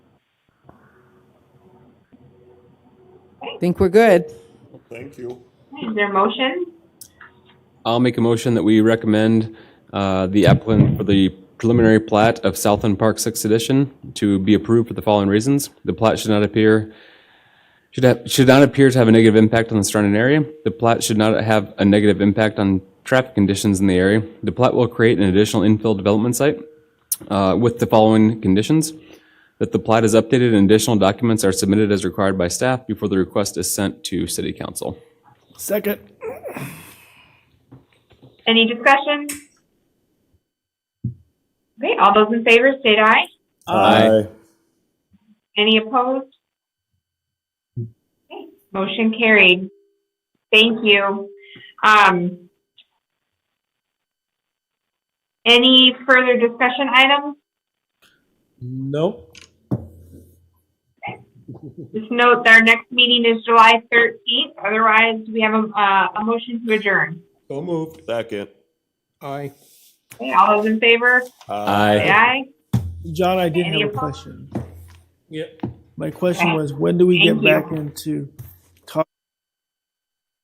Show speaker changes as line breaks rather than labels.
Think we're good.
Thank you.
Is there a motion?
I'll make a motion that we recommend uh, the applicant for the preliminary plat of Southland Park Sixth Edition to be approved for the following reasons. The plat should not appear, should have, should not appear to have a negative impact on the surrounding area. The plat should not have a negative impact on traffic conditions in the area. The plat will create an additional infill development site uh, with the following conditions. That the plat is updated and additional documents are submitted as required by staff before the request is sent to city council.
Second.
Any discussion? Okay, all those in favor state aye.
Aye.
Any opposed? Okay, Motion carried. Thank you. Um, any further discussion items?
Nope.
Just note that our next meeting is July 13th. Otherwise, we have a, uh, a motion to adjourn.
So moved. Second.
Aye.
Okay, all those in favor? Say aye.
John, I did
Any
have a
opposed?
question. Yep. My question was, when do we
Uh, Thank
get
you.
back into